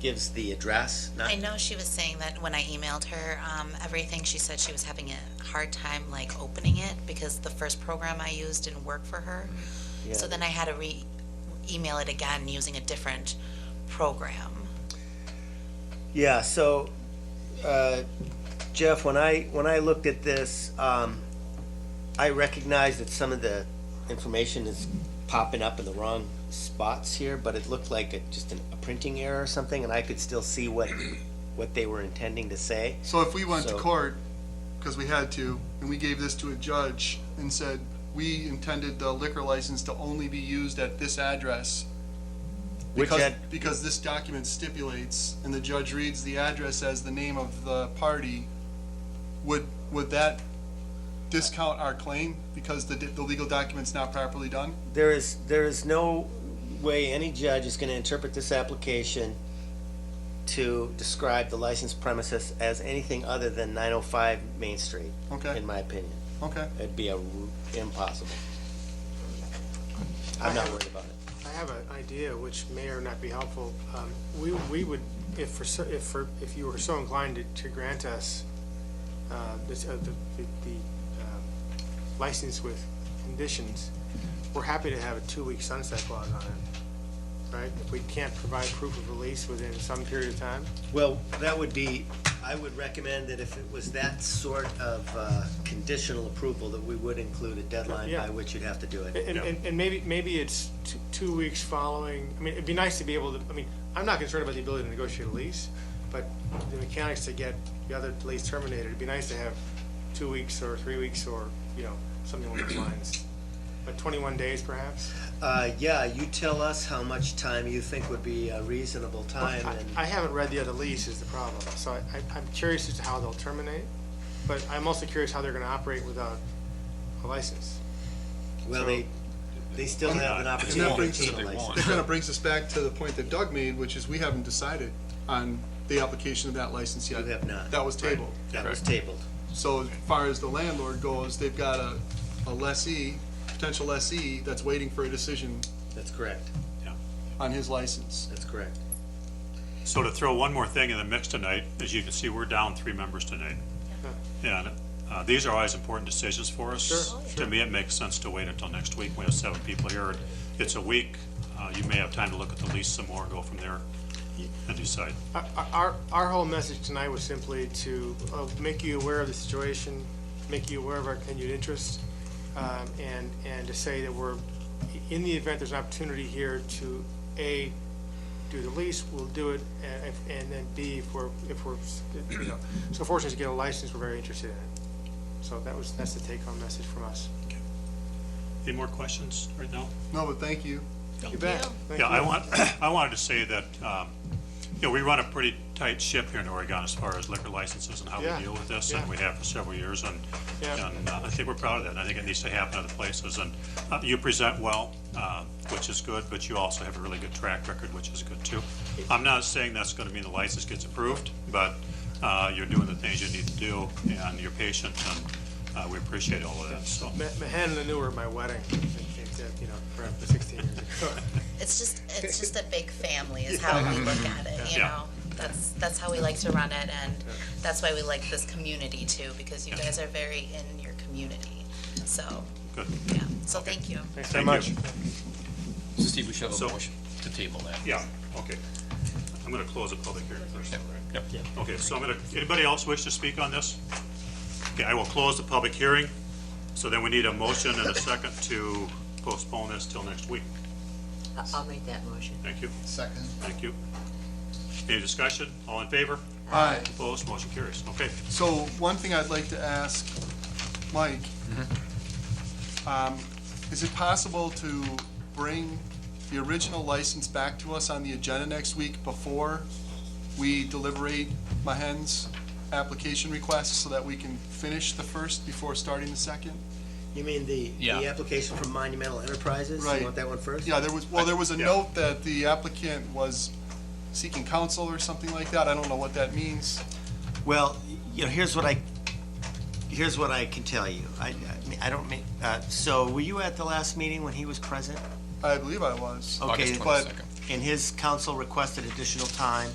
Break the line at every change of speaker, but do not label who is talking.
gives the address, not,
I know she was saying that when I emailed her, um, everything, she said she was having a hard time like opening it because the first program I used didn't work for her. So then I had to re, email it again using a different program.
Yeah, so, uh, Jeff, when I, when I looked at this, um, I recognized that some of the information is popping up in the wrong spots here, but it looked like a, just an- a printing error or something, and I could still see what, what they were intending to say.
So if we went to
So-
court, because we had to, and we gave this to a judge and said, we intended the liquor license to only be used at this address.
Which
Because,
ad-
because this document stipulates, and the judge reads the address as the name of the party, would, would that discount our claim because the, the legal document's not properly done?
There is, there is no way any judge is gonna interpret this application to describe the licensed premises as anything other than nine oh five Main Street,
Okay,
in my opinion.
okay.
It'd be a r- impossible. I'm not worried about it.
I have an idea which may or not be helpful. Um, We, we would, if for, so- if for, if you were so inclined to, to grant us uh, this, uh, the, the the, um, license with conditions, we're happy to have a two-week sunset clause on it, right? If we can't provide proof of release within some period of time,
Well, that would be, I would recommend that if it was that sort of uh, conditional approval, that we would include a deadline by
Yeah.
which you'd have to do it.
And,
Yeah.
and, and maybe, maybe it's t- two weeks following, I mean, it'd be nice to be able to, I mean, I'm not concerned about the ability to negotiate a lease, but the mechanics to get the other lease terminated, it'd be nice to have two weeks or three weeks or, you know, something along those lines. But twenty-one days perhaps?
Uh, Yeah, you tell us how much time you think would be a reasonable time,
I-
and
I haven't read the other lease is the problem, so I, I- I'm curious as to how they'll terminate, but I'm also curious how they're gonna operate without a license.
well, they, they still have an
And that
opportunity
brings
to
us,
take a license.
that kind of brings us back to the point that Doug made, which is we haven't decided on the application of that license yet.
You have not.
That was tabled.
That was tabled.
So as far as the landlord goes, they've got a, a lessee, potential lessee that's waiting for a decision
That's correct,
on his license.
that's correct.
So to throw one more thing in the mix tonight, as you can see, we're down three members tonight. And uh, these are always important decisions for us.
Sure,
To me, it makes sense to wait until next week. We have seven people here. It's a week. Uh, You may have time to look at the lease some more, go from there and decide.
Our- Our, our whole message tonight was simply to uh, make you aware of the situation, make you aware of our continued interest, um, and, and to say that we're, in the event there's an opportunity here to, A, do the lease, we'll do it, and if- and then B, if we're, if we're, you know, so fortunate to get a license, we're very interested in it. So that was, that's the take-home message from us.
Any more questions right now?
No, but thank you.
You bet. Thank
Yeah, I
you.
want, I wanted to say that, um, you know, we run a pretty tight ship here in Oregon as far as liquor licenses and how we
Yeah,
deal with this, and
yeah.
we have for several years, and,
Yeah.
and uh, I think we're proud of that, and I think it needs to happen other places, and uh, you present well, uh, which is good, but you also have a really good track record, which is good too. I'm not saying that's gonna mean the license gets approved, but, uh, you're doing the things you need to do, and you're patient, and, uh, we appreciate all of that, so.
Ma- Mahan and Lanu were at my wedding, I think, you know, for 16 years ago.
It's just, it's just a big family is how we look at it, you
Yeah.
know? That's, that's how we like to run it and that's why we like this community too, because you guys are very in your community. So,
Good.
yeah, so thank you.
Thanks
Thank
very
you.
much.
So Steve, we should have
So-
a motion to table that.
Yeah, okay. I'm gonna close the public hearing first.
Yep.
Okay, so I'm gonna, anybody else wish to speak on this? Okay, I will close the public hearing, so then we need a motion and a second to postpone this till next week.
I- I'll make that motion.
Thank you,
Second.
thank you. Any discussion? All in favor?
All right,
Opposed? Motion carries. Okay,
so one thing I'd like to ask Mike. Um, Is it possible to bring the original license back to us on the agenda next week before we deliberate Mahen's application request so that we can finish the first before starting the second?
You mean the,
Yeah.
the application from Monumental Enterprises?
Right.
You want that one first?
Yeah, there was, well, there was a
Yeah.
note that the applicant was seeking counsel or something like that. I don't know what that means.
Well, you know, here's what I, here's what I can tell you. I, I mean, I don't mean, uh, so were you at the last meeting when he was present?
I believe I was.
Okay,
August
but-
twenty-second.
And his counsel requested additional time